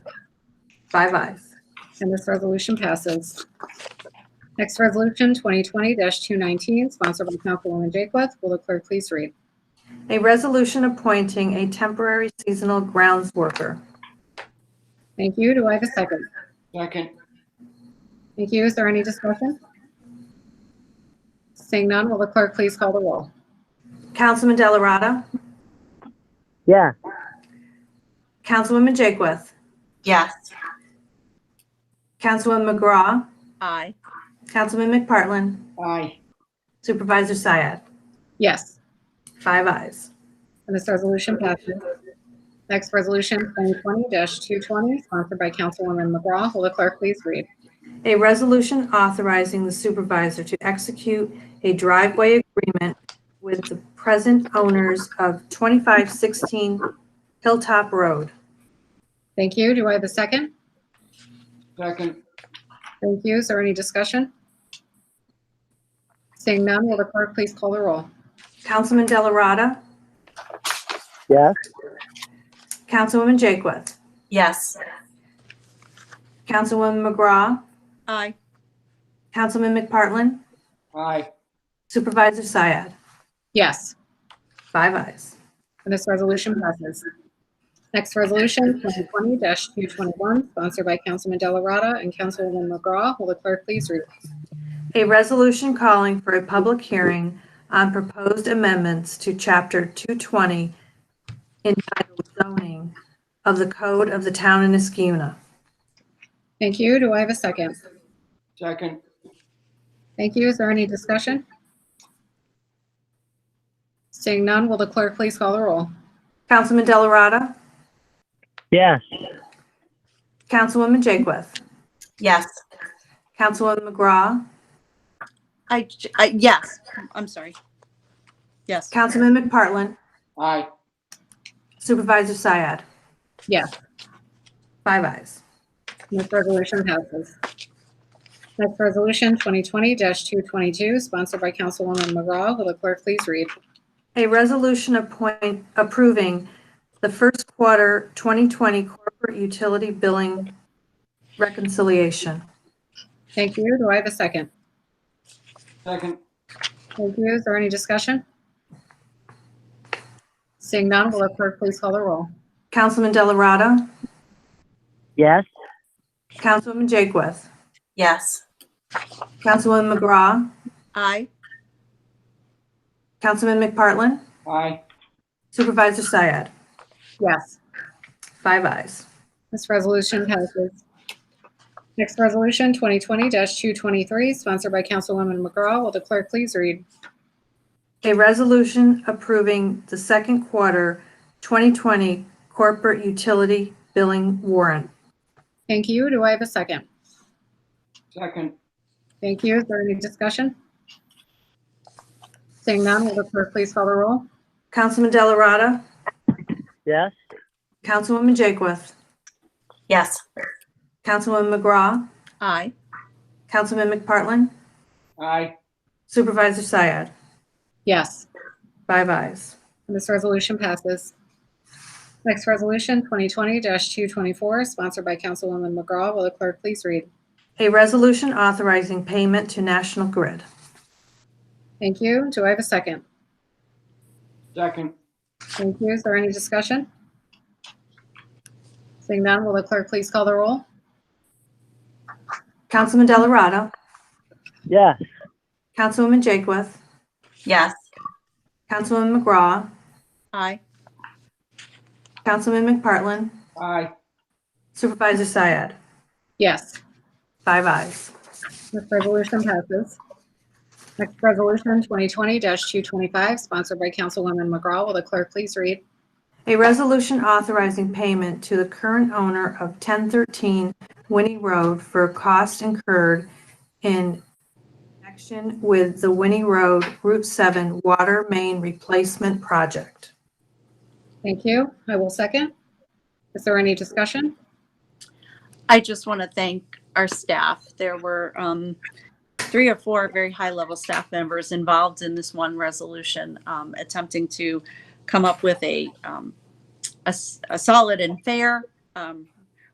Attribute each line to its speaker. Speaker 1: Five ayes.
Speaker 2: and this resolution passes. Next resolution, 2020-219, sponsored by Councilwoman Jaketh. Will the clerk please read?
Speaker 1: A resolution appointing a temporary seasonal grounds worker.
Speaker 2: Thank you. Do I have a second?
Speaker 3: Second,
Speaker 2: Thank you. Is there any discussion? Seeing none, will the clerk please call the roll?
Speaker 1: Councilman Delarada.
Speaker 4: yeah,
Speaker 1: Councilwoman Jakewith.
Speaker 5: Yes.
Speaker 1: Councilwoman McGraw.
Speaker 5: Aye.
Speaker 1: Councilman McPartlin.
Speaker 3: aye.
Speaker 1: Supervisor Syed.
Speaker 2: Yes,
Speaker 1: Five ayes.
Speaker 2: and this resolution passes. Next resolution, 2020-220, sponsored by Councilwoman McGraw. Will the clerk please read?
Speaker 1: A resolution authorizing the supervisor to execute a driveway agreement with the present owners of 2516 Hilltop Road.
Speaker 2: Thank you. Do I have a second?
Speaker 3: Second,
Speaker 2: Thank you. Is there any discussion? Seeing none, will the clerk please call the roll?
Speaker 1: Councilman Delarada.
Speaker 4: yes,
Speaker 1: Councilwoman Jakewith.
Speaker 5: Yes.
Speaker 1: Councilwoman McGraw.
Speaker 5: Aye.
Speaker 1: Councilman McPartlin.
Speaker 3: aye.
Speaker 1: Supervisor Syed.
Speaker 2: Yes,
Speaker 1: Five ayes.
Speaker 2: and this resolution passes. Next resolution, 2020-221, sponsored by Councilman Delarada and Councilwoman McGraw. Will the clerk please read?
Speaker 1: A resolution calling for a public hearing on proposed amendments to Chapter 220 entitled zoning of the Code of the Town of Niskuna.
Speaker 2: Thank you. Do I have a second?
Speaker 3: Second,
Speaker 2: Thank you. Is there any discussion? Seeing none, will the clerk please call the roll?
Speaker 1: Councilman Delarada.
Speaker 4: yes,
Speaker 1: Councilwoman Jakewith.
Speaker 5: Yes.
Speaker 1: Councilwoman McGraw.
Speaker 5: I, I, yes, I'm sorry. Yes.
Speaker 1: Councilman McPartlin.
Speaker 3: aye.
Speaker 1: Supervisor Syed.
Speaker 2: Yes.
Speaker 1: Five ayes.
Speaker 2: This resolution passes. Next resolution, 2020-222, sponsored by Councilwoman McGraw. Will the clerk please read?
Speaker 1: A resolution appoint, approving the first quarter 2020 corporate utility billing reconciliation.
Speaker 2: Thank you. Do I have a second?
Speaker 3: Second,
Speaker 2: Thank you. Is there any discussion? Seeing none, will the clerk please call the roll?
Speaker 1: Councilman Delarada.
Speaker 4: yes,
Speaker 1: Councilwoman Jakewith.
Speaker 5: Yes.
Speaker 1: Councilwoman McGraw.
Speaker 5: Aye.
Speaker 1: Councilman McPartlin.
Speaker 3: aye.
Speaker 1: Supervisor Syed.
Speaker 2: Yes.
Speaker 1: Five ayes.
Speaker 2: This resolution passes. Next resolution, 2020-223, sponsored by Councilwoman McGraw. Will the clerk please read?
Speaker 1: A resolution approving the second quarter 2020 corporate utility billing warrant.
Speaker 2: Thank you. Do I have a second?
Speaker 3: Second,
Speaker 2: Thank you. Is there any discussion? Seeing none, will the clerk please call the roll?
Speaker 1: Councilman Delarada.
Speaker 4: yes,
Speaker 1: Councilwoman Jakewith.
Speaker 5: Yes.
Speaker 1: Councilwoman McGraw.
Speaker 5: Aye.
Speaker 1: Councilman McPartlin.
Speaker 3: aye.
Speaker 1: Supervisor Syed.
Speaker 2: Yes,
Speaker 1: Five ayes.
Speaker 2: and this resolution passes. Next resolution, 2020-224, sponsored by Councilwoman McGraw. Will the clerk please read?
Speaker 1: A resolution authorizing payment to National Grid.
Speaker 2: Thank you. Do I have a second?
Speaker 3: Second,
Speaker 2: Thank you. Is there any discussion? Seeing none, will the clerk please call the roll?
Speaker 1: Councilman Delarada.
Speaker 4: yes,
Speaker 1: Councilwoman Jakewith.
Speaker 5: Yes.
Speaker 1: Councilwoman McGraw.
Speaker 5: Aye.
Speaker 1: Councilman McPartlin.
Speaker 3: aye.
Speaker 1: Supervisor Syed.
Speaker 2: Yes,
Speaker 1: Five ayes.
Speaker 2: this resolution passes. Next resolution, 2020-225, sponsored by Councilwoman McGraw. Will the clerk please read?
Speaker 1: A resolution authorizing payment to the current owner of 1013 Winnie Road for costs incurred in connection with the Winnie Road Route 7 Water Main Replacement Project.
Speaker 2: Thank you. I will second. Is there any discussion?
Speaker 5: I just want to thank our staff. There were um, three or four very high level staff members involved in this one resolution, um, attempting to come up with a, um, a, s- a solid and fair um,